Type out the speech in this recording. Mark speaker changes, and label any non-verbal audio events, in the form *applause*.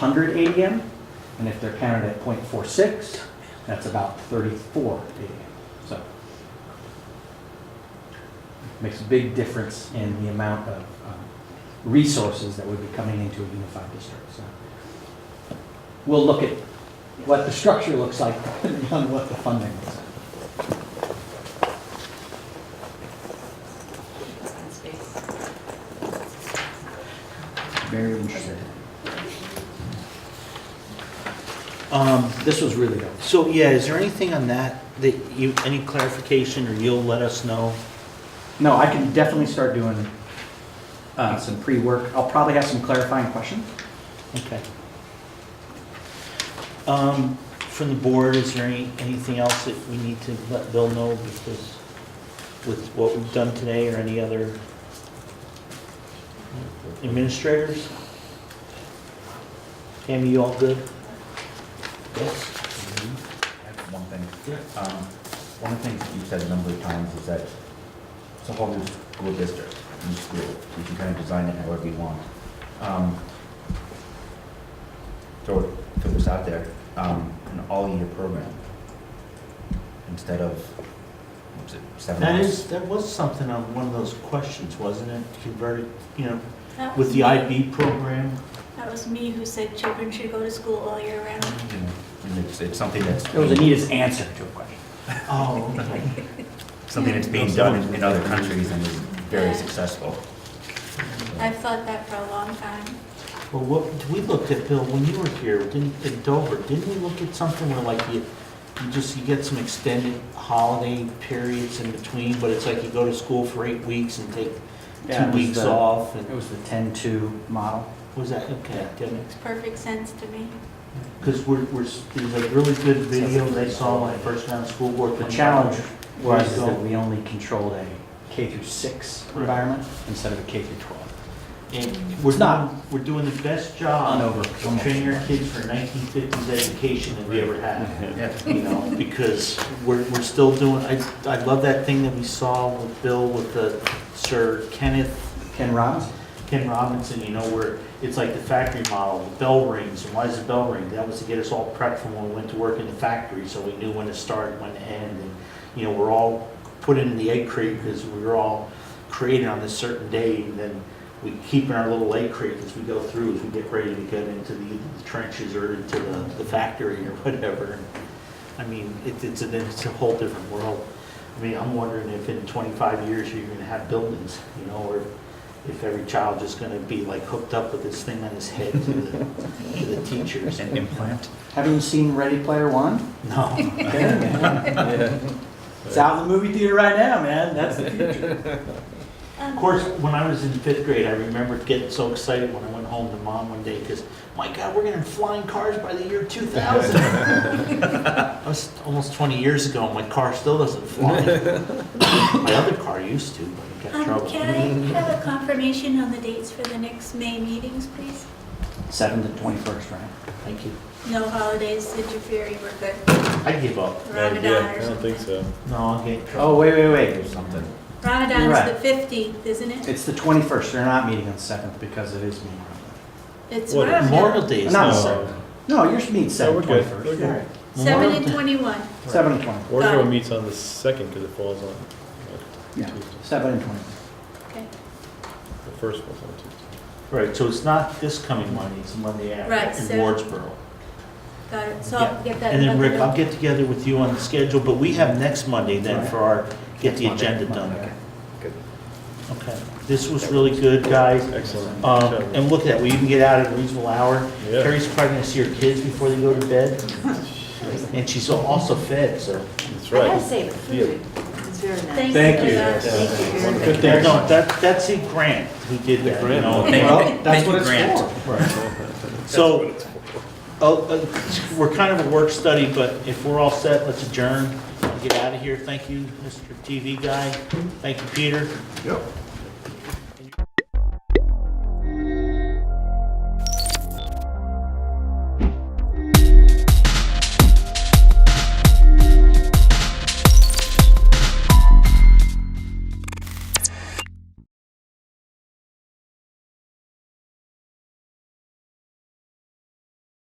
Speaker 1: 100 ADM, and if they're counted at .46, that's about 34 ADM. So makes a big difference in the amount of um, resources that would be coming into a unified district. So we'll look at what the structure looks like *laughs* depending on what the funding is. Very interesting. Um, This was really good.
Speaker 2: So, yeah, is there anything on that, that you, any clarification, or you'll let us know?
Speaker 1: No, I can definitely start doing uh, some pre-work. I'll probably have some clarifying questions.
Speaker 2: Okay. Um, From the board, is there any, anything else that we need to let Bill know, because with what we've done today, or any other administrators? Pam, you all good? Yes.
Speaker 3: I have One thing. Um, One of the things that you've said a number of times is that it's a whole new school district, new school. You can kind of design it however you want. Um, Throw, throw this out there, um, an all-year program instead of, what's it, seven
Speaker 2: That
Speaker 3: months?
Speaker 2: is, that was something on one of those questions, wasn't it? Converted, you know,
Speaker 4: That
Speaker 2: with
Speaker 4: was
Speaker 2: the
Speaker 4: me-
Speaker 2: IB program?
Speaker 4: That was me who said children should go to school all year round.
Speaker 3: You know, And it's, it's something that's,
Speaker 1: It was Anita's answer to a question.
Speaker 2: Oh, okay.
Speaker 3: something that's being done in- in other countries and is very successful.
Speaker 4: I've thought that for a long time.
Speaker 2: Well, what, we looked at, Bill, when you were here, didn't, in Dover, didn't we look at something where like you, you just, you get some extended holiday periods in between, but it's like you go to school for eight weeks and take
Speaker 1: Yeah, it
Speaker 2: two
Speaker 1: was
Speaker 2: weeks
Speaker 1: the-
Speaker 2: off,
Speaker 1: It
Speaker 2: and,
Speaker 1: was the 10-2 model.
Speaker 2: was that, okay, didn't
Speaker 4: Makes perfect sense to me.
Speaker 2: Because we're, we're, s- there's a really good video they saw when I first got on the school board.
Speaker 1: The challenge was
Speaker 2: Right.
Speaker 1: that we only controlled a K through 6
Speaker 2: Right.
Speaker 1: environment instead of a K through 12.
Speaker 2: And we're
Speaker 1: It's not-
Speaker 2: not, we're doing the best
Speaker 1: On
Speaker 2: job
Speaker 1: over.
Speaker 2: of training our kids for nineteen fifties education that we ever had.
Speaker 3: Yeah.
Speaker 2: you know, because we're, we're still doing, I, I love that thing that we saw with Bill with the Sir Kenneth,
Speaker 1: Ken Robbins?
Speaker 2: Ken Robinson, you know, where it's like the factory model, the bell rings, and why is the bell ring? That was to get us all prepped for when we went to work in the factory, so we knew when to start, when to end, and, you know, we're all put in the egg crate because we were all created on this certain day, and then we keep in our little egg crate as we go through, as we get ready to get into the trenches or into the, the factory or whatever. I mean, it, it's a, it's a whole different world. I mean, I'm wondering if in twenty-five years you're gonna have buildings, you know, or if every child is gonna be like hooked up with this thing on his head to the, to the teachers.
Speaker 3: An implant?
Speaker 1: Haven't you seen Ready Player
Speaker 2: *laughs*
Speaker 1: One?
Speaker 2: No,
Speaker 1: It's out in the movie theater right now, man. That's the future.
Speaker 4: Um,
Speaker 2: of course, when I was in fifth grade, I remember getting so excited when I went home to mom one day, because, my God, we're gonna have flying cars by the year two
Speaker 3: *laughs*
Speaker 2: thousand. That was almost twenty years ago, and my car still doesn't fly. My other car used to, but it got
Speaker 4: Um,
Speaker 2: trouble.
Speaker 4: can I have a confirmation on the dates for the next May meetings, please?
Speaker 1: 7 to 21st, right?
Speaker 2: Thank you.
Speaker 4: No holidays, did you fear you were good?
Speaker 2: I give up.
Speaker 4: Ramadan or
Speaker 5: I don't think
Speaker 4: something.
Speaker 5: so.
Speaker 2: No, I'll get in trouble.
Speaker 1: Oh, wait, wait, wait.
Speaker 3: Or something.
Speaker 1: You're
Speaker 4: Ramadan's
Speaker 1: right.
Speaker 4: the fifteenth, isn't it?
Speaker 1: It's the 21st. They're not meeting on the 7th because it is meeting on
Speaker 4: It's
Speaker 5: What,
Speaker 4: Ramadan.
Speaker 2: Memorial Day is
Speaker 1: No.
Speaker 5: Uh,
Speaker 2: not
Speaker 1: the... No, you're meeting 7
Speaker 5: we're good. We're
Speaker 1: 21st.
Speaker 5: good.
Speaker 1: All right.
Speaker 4: Seven and
Speaker 2: Memorial Day.
Speaker 4: twenty-one.
Speaker 1: 7 and 20.
Speaker 5: Orville meets on the second because it falls on
Speaker 1: Yeah,
Speaker 5: Tuesday.
Speaker 1: 7 and 20.
Speaker 4: Okay,
Speaker 5: The first falls on Tuesday.
Speaker 2: Right, so it's not this coming Monday, it's Monday
Speaker 4: Right,
Speaker 2: after
Speaker 4: so-
Speaker 2: in Wardsboro.
Speaker 4: got it. So I'll get that.
Speaker 2: And then
Speaker 4: another
Speaker 2: Rick, I'll
Speaker 4: note.
Speaker 2: get together with you on the schedule, but we have next Monday then for our, get the
Speaker 1: Monday,
Speaker 2: agenda
Speaker 1: Monday.
Speaker 2: done.
Speaker 5: Good.
Speaker 2: Okay, this was really good, guys.
Speaker 5: Excellent.
Speaker 2: Um, and look at that, we even get out at a reasonable hour.
Speaker 5: Yeah.
Speaker 2: Carrie's probably gonna see her kids before they go to bed. And she's also fed, so.
Speaker 5: That's
Speaker 6: I gotta
Speaker 5: right.
Speaker 6: say, the food, it's very nice.
Speaker 4: Thank you.
Speaker 6: Thank you. very much.
Speaker 2: Good thing. No, that, that's a grant who did that, you know.
Speaker 3: Thank you.
Speaker 1: Well, that's
Speaker 3: Thank you,
Speaker 1: what it's
Speaker 3: Grant.
Speaker 1: for.
Speaker 2: So, oh, uh, we're kind of a work study, but if we're all set, let's adjourn and get out of here. Thank you, Mr. TV guy. Thank you, Peter.
Speaker 3: Yep.